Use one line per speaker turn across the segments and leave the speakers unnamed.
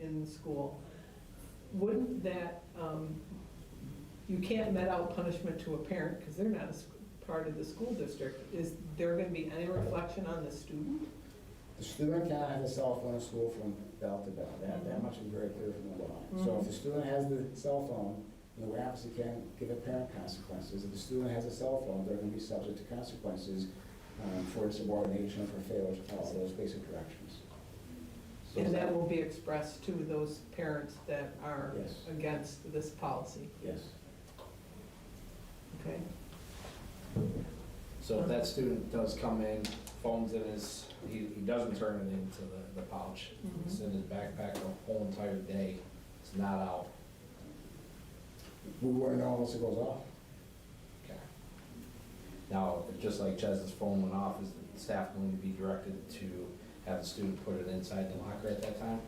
in school, wouldn't that, um, you can't met out punishment to a parent because they're not a s- part of the school district. Is there going to be any reflection on the student?
The student cannot have a cell phone in school from bell to bell, that, that much is very clear from the law. So if the student has the cell phone, then we obviously can give a parent consequences. If the student has a cell phone, they're gonna be subject to consequences um, for insubordination, for failure to follow those basic directions. So-
And that will be expressed to those parents that are
Yes.
against this policy,
Yes.
okay?
So if that student does come in, phones in his, he, he doesn't turn it into the, the pouch. It's in his backpack the whole entire day. It's not out.
We wouldn't know unless it goes off.
Okay. Now, if just like Chez's phone went off, is the staff going to be directed to have the student put it inside the locker at that time?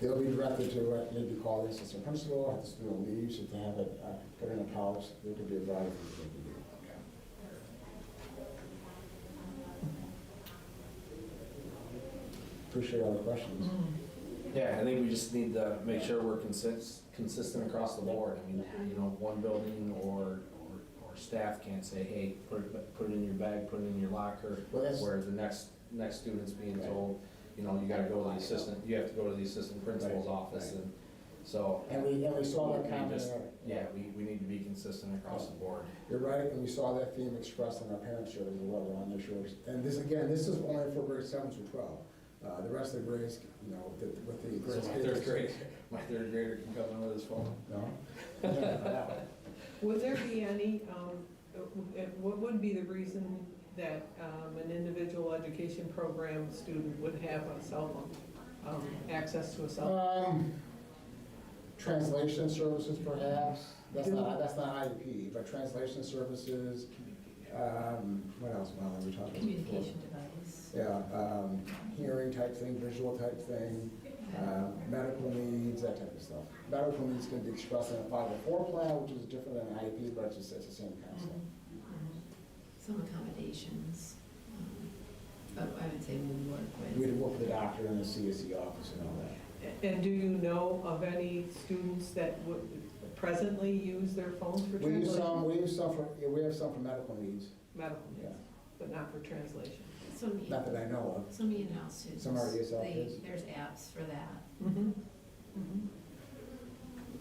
They'll be directed to, uh, maybe call the assistant principal, if the student leaves, if they have it, uh, put in a pouch, there could be a variety of things they can do. Appreciate all the questions.
Yeah, I think we just need to make sure we're consist, consistent across the board. I mean, you know, one building or, or, or staff can't say, hey, put it, put it in your bag, put it in your locker.
Well, that's-
Where the next, next student's being
Right.
told, you know, you gotta go to the assistant, you have to go to the assistant principal's
Right,
office
right.
and so.
And we, and we saw that
We
comment,
just-
in our-
Yeah, we, we need to be consistent across the board.
you're right, and we saw that theme expressed on our parents' shoulders as well, on their shoulders. And this, again, this is only for grades seven through 12. Uh, The rest of the grades, you know, with the- with the.
So
grades-
my third grader, my third grader can come in with his phone.
No? No.
Would there be any, um, uh, what would be the reason that um, an individual education program student would have a cell phone, um, access to a cell? phone?
Um, Translation services perhaps, that's not, that's not IEP, but translation services, um, what else, Molly, we talked about? before?
Communication device.
Yeah, um, hearing type thing, visual type thing, uh, medical needs, that type of stuff. Medical needs can be expressed in a 504 plan, which is different than an IEP, but it's just- it's the same concept.
Mm-hmm.
um, Some accommodations, um, but I would say we work with.
We'd work with the doctor in the CSE office and all that.
And do you know of any students that would presently use their phones for
We use some,
translation?
we use some for, yeah, we have some for medical needs,
Medical
yeah,
needs, but not for translation.
Some,
not that I
E-
know of.
some E and L students.
Some are ESL
they-
kids.
There's apps for that.
Mhm.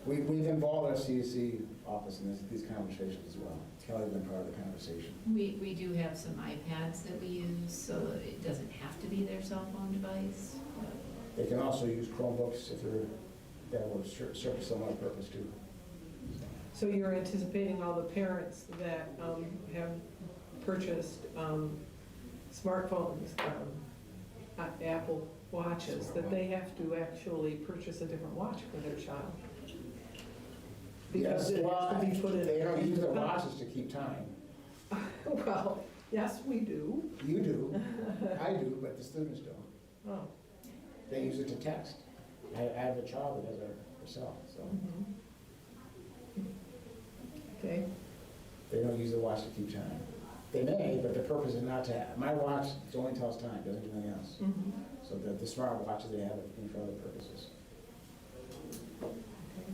We, we've involved our CSE office in this, these conversations as well. Kelly's been part of the conversation.
We, we do have some iPads that we use, so that it doesn't have to be their cell phone device. but-
They can also use Chromebooks if they're, that will ser- serve some other purpose too.
So you're anticipating all the parents that um, have purchased um, smartphones, um, A- Apple watches, that they have to actually purchase a different watch for their child? Because
Yes,
it has to be put in.
They don't use their watches to keep time.
Well, yes, we do.
You do, I do, but the students don't.
Oh,
They use it to text. I I have a child that does it herself, so
okay.
they don't use the watch to keep time. They may, but the purpose is not to, my watch it only tells time, doesn't do anything else. So the the smart watches they have are for other purposes.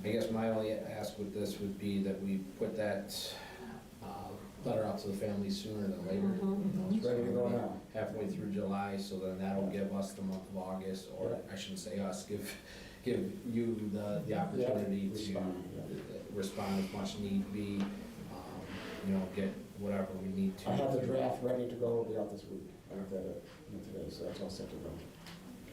I guess my only ask with this would be that we put that uh, letter out to the families sooner than
Mm-hmm.
later.
It's ready to go now.
Halfway through July, so then that'll give us the month of August, or
Yeah.
I shouldn't say us, give, give you the, the opportunity to
respond, yeah.
respond as much need be, um, you know, get whatever we need to.
I have the draft ready to go, it'll be out this week. I looked at it you know, today, so that's all set to go.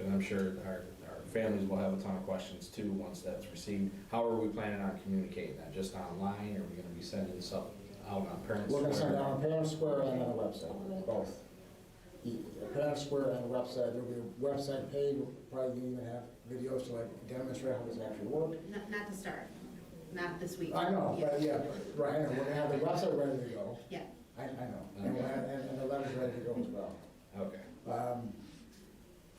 And I'm sure our, our families will have a ton of questions too, once that's received. How are we planning on communicating that? Just online, or are we gonna be sending stuff out on parents?
We're gonna send out on Parent Square and on the website, both. E- Parent Square and the website, there'll be a website page, we'll probably even have videos to like demonstrate how this actually works.
Not, not to start, not this week.
I know, but yeah, right, and we're gonna have the website ready to go.
Yeah,
I, I know, and, we'll have- and and the letter's ready to go as well.
Okay,
Um,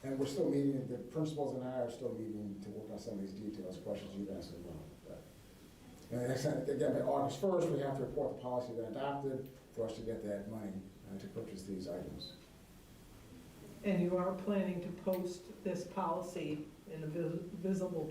And we're still meeting, the principals and I are still meeting to work on some of these details, questions you've asked as well. But- And that's, uh, again, by August first, we have to report the policy that adopted for us to get that money uh, to purchase these items.
And you are planning to post this policy in a vis- visible